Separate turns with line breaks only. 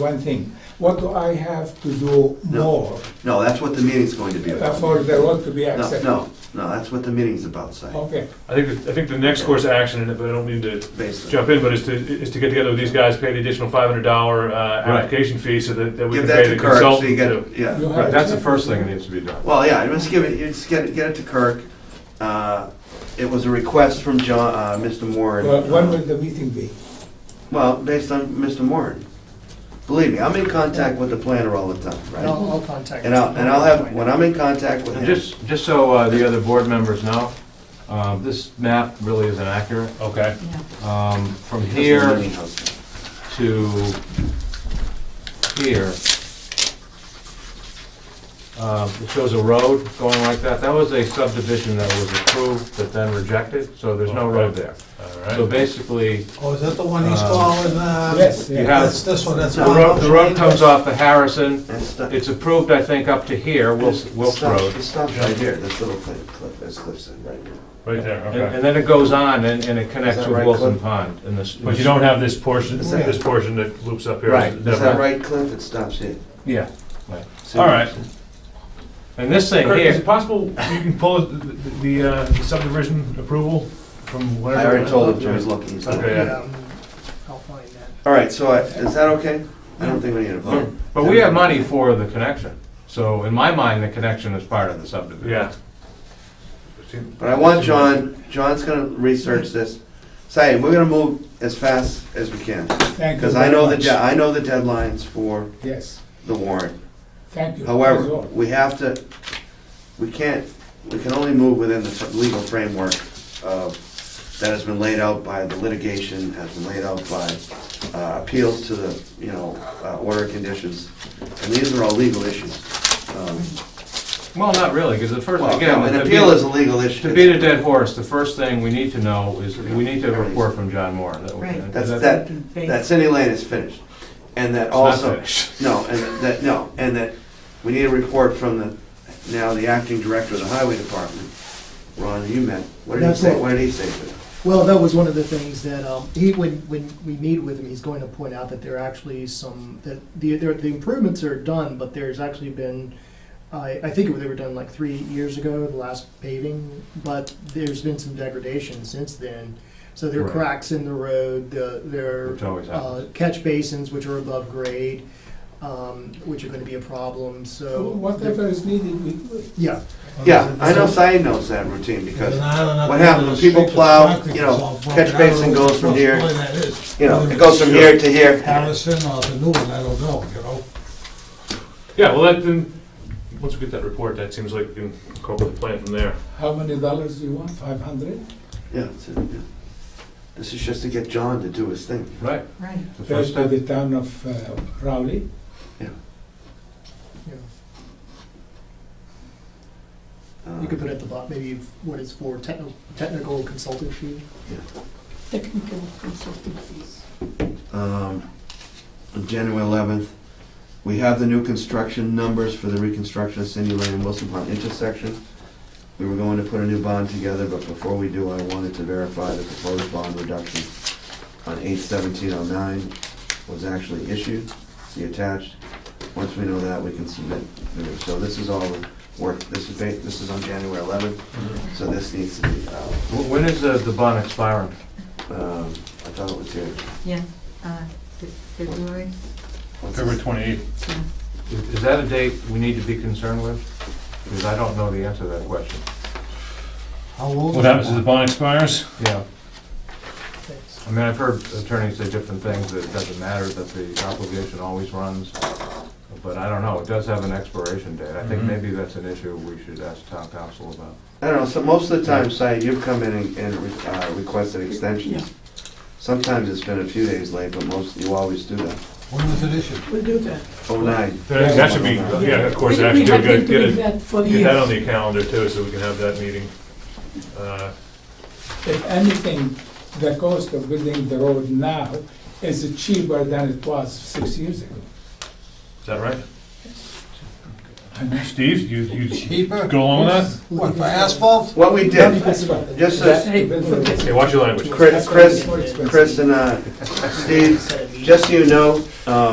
One thing, what do I have to do
No.
more
No, that's what the meeting's going to be
uh,
about.
for the road to be
No,
accepted?
no, no, that's what the meeting's about, Si.
Okay,
I think, that- I think the next course of action, and if I don't mean to
Basically.
jump in, but is to, is to get together with these guys, pay the additional five hundred dollar, uh,
Right.
application fee so that, that we
Give
can
that
pay the
to Kirk, so
consultant
you
to.
get, yeah.
You have-
right.
That's the first thing that needs to be done.
Well, yeah, just give it, you just get it, get it to Kirk. Uh, It was a request from John, uh, Mr. Moran.
well, when will the meeting be?
Well, based on Mr. Moran. Believe me, I'm in contact with the planner all the time,
And I'll,
right?
I'll contact.
And I'll, and I'll have, when I'm in contact with
And
him,
just, just so uh, the other board members know, uh, this map really isn't accurate.
Okay,
Um, From
Doesn't
here
mean nothing.
to here, uh, it shows a road going like that. That was a subdivision that was approved but then rejected, so there's no road there. So
all right.
basically,
Oh, is that the one he's
Um,
calling, uh?
Yes,
you
yeah.
have,
That's this one, that's.
the road, the road comes off of Harrison.
That's not-
It's approved, I think, up to here, Wilkes
it
Wilkes
stops-
Road.
It stops right here, this little thing, Cliff, as Cliff said, right here.
Right there,
And
okay.
and then it goes on and and it connects
Is that
with
right,
Wilson
Cliff?
Pond in this.
But you don't have this portion,
Is that-
this portion that loops up here.
Right.
Is
Is
that
that right, Cliff? It stops here.
Yeah.
See
All
what
right.
I'm saying?
And this thing
Kirk, is
here,
it possible you can pull the, the uh, the subdivision approval from whatever?
I already told him, Joe's looking. he's
Okay.
looking.
Yeah.
um, I'll find that.
All right, so I- is that okay? I don't think we need a
Hmm.
vote.
but we have money for the connection. So in my mind, the connection is part of the subdivision.
Yeah.
But I want John, John's gonna research this. Say, we're gonna move as fast as we can,
Thank you
because I
very
know the,
much.
de- I know the deadlines for
Yes,
the warrant.
thank you. That's
However,
all.
we have to, we can't, we can only move within the fr- legal framework of, that has been laid out by the litigation, has been laid out by uh, appeals to the, you know, uh, order of conditions. And these are all legal issues. Um,
Well, not really, because the first,
Well,
again,
no, an
to
appeal is a
beat,
legal issue.
to beat a dead horse, the first thing we need to know is, we need to report from John Moore. that we-
Right.
That's, that, that Cindy Lane is finished. And that also.
finished.
No, and that, no, and that, we need a report from the, now the acting director of the highway department, Ron, you met. What did he
That's
say,
it.
what did he say to that?
Well, that was one of the things that, um, he, when, when we meet with him, he's going to point out that there are actually some, that the, there- the improvements are done, but there's actually been, I, I think they were done like three years ago, the last paving, but there's been some degradation since then. So there are
Right.
cracks in the road, the- there
Which always
are uh,
happens.
catch basins which are above grade, um, which are gonna be a problem,
Uh,
so.
Whatever is needed, we do it.
Yeah,
Yeah, I know Si knows that routine because,
what
what happens when people plow, you know, catch basin goes from here, you know, it goes from here to here.
Harrison or the new one, I don't know, you know?
Yeah, well, that, then, once we get that report, that seems like we can incorporate the plan from there.
How many dollars do you want? Five hundred?
Yeah, it's a- yeah. This is just to get John to do his thing.
Right.
Right.
The
Goes
first
to
step.
the town of uh, Rowley.
yeah.
Uh,
You could put at the bottom, maybe what is for technical, technical consultant fee.
Technical consulting fees.
um, on January 11th. We have the new construction numbers for the reconstruction of Cindy Lane and Wilson Pond intersection. We were going to put a new bond together, but before we do, I wanted to verify that the proposed bond reduction on 8/17/09 was actually issued, see attached. Once we know that, we can submit. the new. So this is all the work, this is, ba- this is on January 11th, so this needs to be, uh,
Wh- When is the the bond expiring?
um, I thought it was here.
Yeah, uh, Fe- February,
What's this?
February twenty-eighth.
so,
Is is that a date we need to be concerned with? Because I don't know the answer to that question.
How old?
What
is
happens is the bond expires?
Yeah.
Thanks.
I mean, I've heard attorneys say different things, that it doesn't matter, that the obligation always runs, but I don't know, it does have an expiration date. I think
Mhm.
maybe that's an issue we should ask town council about.
I don't know, so most of the time, Si, you've come in and- and re- uh, requested extensions. Sometimes it's been a few days late, but most, you always do that.
When was it issued?
we'll do that.
Oh, nine.
That should be, yeah, of course,
We-
actually,
We have
get,
been
get
doing
it,
that for
get that on
years.
the calendar too, so we can have that meeting. Uh,
If anything, the cost of building the road now is cheaper than it was six years ago.
Is that right? uh, Steve, you, you
Cheaper?
go along with
What, for asphalt?
What we did,
That's what-
Yes, sir.
that- to build the road.
that? Okay, watch your language.
Chris, Chris,
That's why it's more expensive.
Chris and uh, Steve, just so you know, um,